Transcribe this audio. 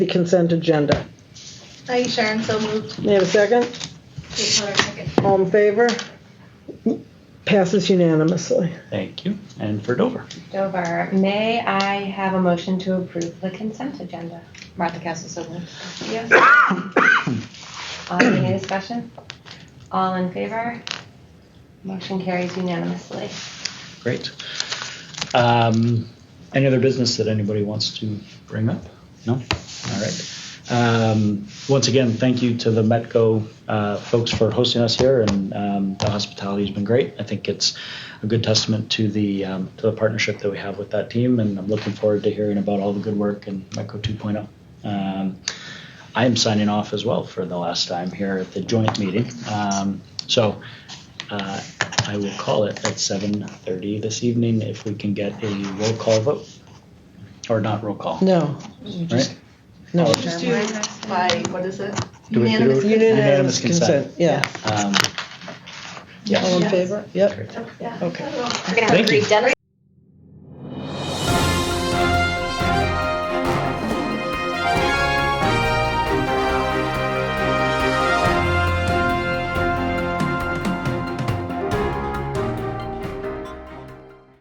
the consent agenda. Aye, Sharon, so moved. May I have a second? Kate Miller, second. All in favor? Passes unanimously. Thank you. And for Dover. Dover, may I have a motion to approve the consent agenda? Martha Castle, so moved. Yes. Uh, Any discussion? All in favor? Motion carries unanimously. Great. Um, any other business that anybody wants to bring up? No? All right. Um, once again, thank you to the Metco uh, folks for hosting us here, and um, the hospitality has been great. I think it's a good testament to the um, to the partnership that we have with that team, and I'm looking forward to hearing about all the good work in Metco 2.0. Um, I am signing off as well for the last time here at the joint meeting. Um, so uh, I will call it at 7:30 this evening if we can get a roll call vote, or not roll call. No, Right? no. Just do by, what is it? Do we- do we- Unanimous consent. Unanimous consent. Yeah. Um, All in Yes. favor? Yep. Great. Yeah. Okay. We're gonna Thank you. dinner.